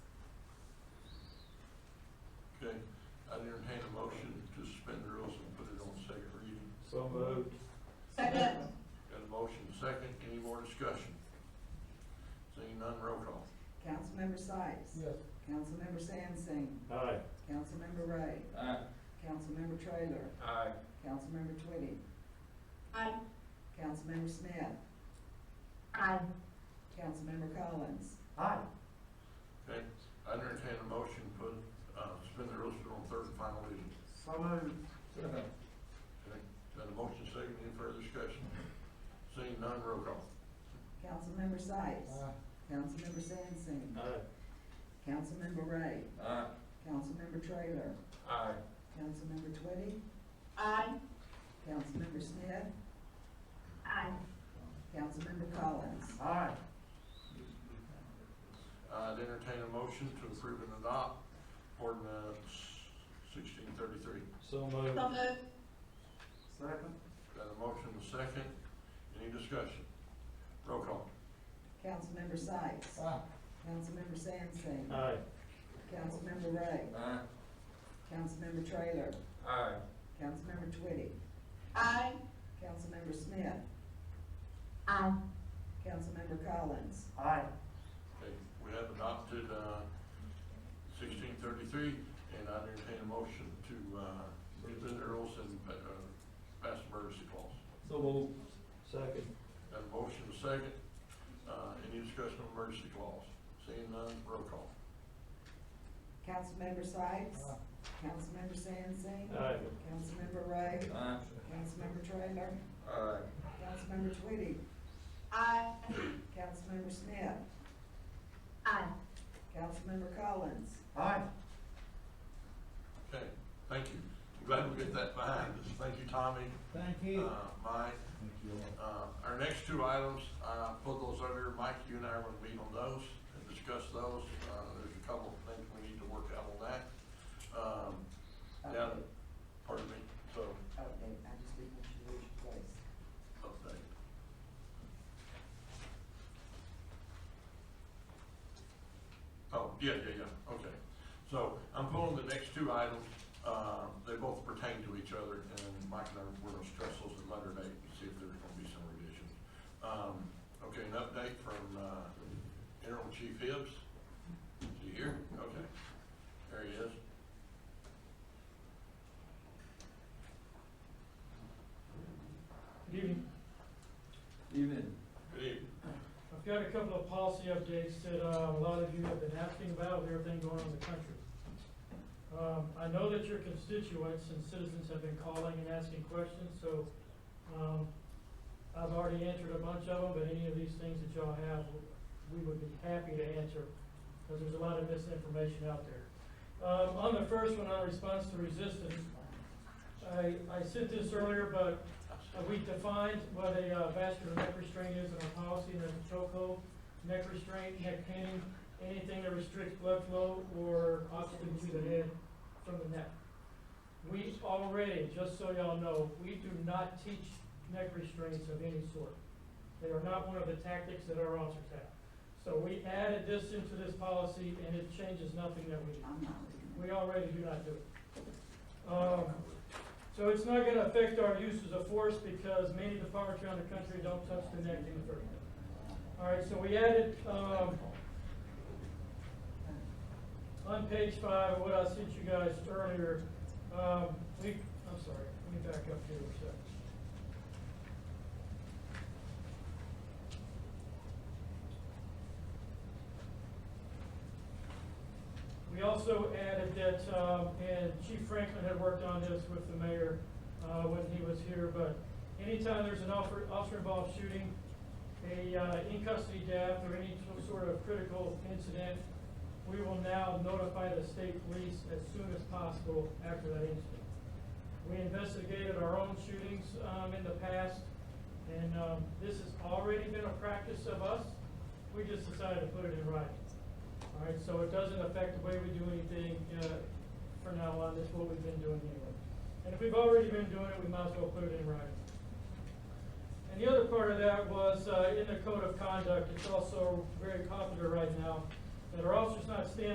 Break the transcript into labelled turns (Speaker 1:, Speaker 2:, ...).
Speaker 1: entertain a motion to suspend the rules and put it on second reading.
Speaker 2: So moved.
Speaker 3: Second.
Speaker 1: Got a motion second, any more discussion? Seeing none, roll call.
Speaker 3: Councilmember Sykes.
Speaker 2: Yes.
Speaker 3: Councilmember Sansing.
Speaker 2: Aye.
Speaker 3: Councilmember Ray.
Speaker 4: Aye.
Speaker 3: Councilmember Trailer.
Speaker 4: Aye.
Speaker 3: Councilmember Twitty.
Speaker 5: Aye.
Speaker 3: Councilmember Smith.
Speaker 5: Aye.
Speaker 3: Councilmember Collins.
Speaker 4: Aye.
Speaker 1: Okay, I entertain a motion to put, uh, suspend the rules for on third and final reading.
Speaker 4: So moved. Second.
Speaker 1: Okay, got a motion second, any further discussion? Seeing none, roll call.
Speaker 3: Councilmember Sykes. Councilmember Sansing.
Speaker 2: Aye.
Speaker 3: Councilmember Ray.
Speaker 4: Aye.
Speaker 3: Councilmember Trailer.
Speaker 4: Aye.
Speaker 3: Councilmember Twitty.
Speaker 5: Aye.
Speaker 3: Councilmember Smith.
Speaker 5: Aye.
Speaker 3: Councilmember Collins.
Speaker 4: Aye.
Speaker 1: I'd entertain a motion to approve and adopt ordinance sixteen thirty-three.
Speaker 2: So moved.
Speaker 5: So moved.
Speaker 4: Second.
Speaker 1: Got a motion second, any discussion? Roll call.
Speaker 3: Councilmember Sykes.
Speaker 4: Aye.
Speaker 3: Councilmember Sansing.
Speaker 2: Aye.
Speaker 3: Councilmember Ray.
Speaker 4: Aye.
Speaker 3: Councilmember Trailer.
Speaker 4: Aye.
Speaker 3: Councilmember Twitty.
Speaker 5: Aye.
Speaker 3: Councilmember Smith.
Speaker 5: Aye.
Speaker 3: Councilmember Collins.
Speaker 4: Aye.
Speaker 1: Okay, we have adopted uh, sixteen thirty-three, and I entertain a motion to uh, suspend the rules and uh, pass emergency clause.
Speaker 2: So moved. Second.
Speaker 1: Got a motion second, Uh, any discussion on emergency clause? Seeing none, roll call.
Speaker 3: Councilmember Sykes. Councilmember Sansing.
Speaker 2: Aye.
Speaker 3: Councilmember Ray.
Speaker 4: Aye.
Speaker 3: Councilmember Trailer.
Speaker 4: Aye.
Speaker 3: Councilmember Twitty.
Speaker 5: Aye.
Speaker 3: Councilmember Smith.
Speaker 5: Aye.
Speaker 3: Councilmember Collins.
Speaker 4: Aye.
Speaker 1: Okay, thank you. I'm Glad we get that behind us. Thank you, Tommy,
Speaker 4: Thank
Speaker 1: uh, Mike. Uh, Our next two items, I put those over here. Mike, you and I are going to meet on those and discuss those. Uh, There's a couple of things we need to work out on that. Um, Yeah, pardon me, so,
Speaker 3: Okay, Oh, I just didn't want you to lose your place.
Speaker 1: update. Oh, yeah, yeah, yeah, okay. So I'm pulling the next two items, uh, they both pertain to each other, and Mike and I, we're gonna stress those at later date and see if there's gonna be some revisions. Um, okay, an update from, uh, Interim Chief Hibbs. Is he here? Okay, there he is.
Speaker 6: Good evening.
Speaker 4: Evening.
Speaker 1: Good evening.
Speaker 6: I've got a couple of policy updates that uh, a lot of you have been asking about with everything going on in the country. Um, I know that your constituents and citizens have been calling and asking questions, so um, I've already answered a bunch of them, but any of these things that y'all have, we would be happy to answer, because there's a lot of misinformation out there. Um, On the first one, on response to resistance, I, I said this earlier, but uh, we defined what a uh, vascular neck restraint is in our policy, and that's a chokehold, neck restraint, neck pinning, anything that restricts blood flow or oxygen to the head from the neck. We already, just so y'all know, we do not teach neck restraints of any sort. They are not one of the tactics that our officers have. So we added this into this policy, and it changes nothing that we do.
Speaker 3: I'm not reading it.
Speaker 6: We already do not do it. Um, So it's not gonna affect our uses of force because many departments around the country don't touch the neck any further. All right, so we added, um, on page five, what I sent you guys earlier, um, we, I'm sorry, let me back up here a second. We also added that, um, and Chief Franklin had worked on this with the mayor uh, when he was here, but anytime there's an officer officer involved shooting, a uh, in custody death, or any sort of critical incident, we will now notify the state police as soon as possible after that incident. We investigated our own shootings um, in the past, and um, this has already been a practice of us. We just decided to put it in writing. All right, so it doesn't affect the way we do anything, uh, from now on, that's what we've been doing anyway. And if we've already been doing it, we might as well put it in writing. And the other part of that was, uh, in the code of conduct, it's also very popular right now, that our officers not standing